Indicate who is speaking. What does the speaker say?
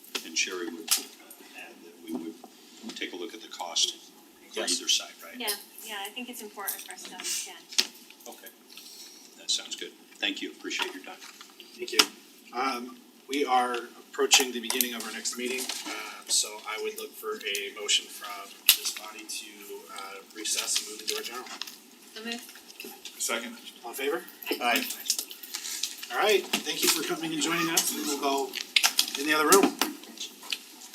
Speaker 1: Sherry would add that we would take a look at the cost for
Speaker 2: Yes.
Speaker 1: either side, right?
Speaker 3: Yeah, yeah, I think it's important for us to understand.
Speaker 1: Okay, that sounds good. Thank you, appreciate your time.
Speaker 4: Thank you. Um, we are approaching the beginning of our next meeting, uh, so I would look for a motion from this body to, uh, recess and move into our general.
Speaker 3: So moved.
Speaker 5: Second.
Speaker 4: All in favor? Aye. All right, thank you for coming and joining us, we will go in the other room.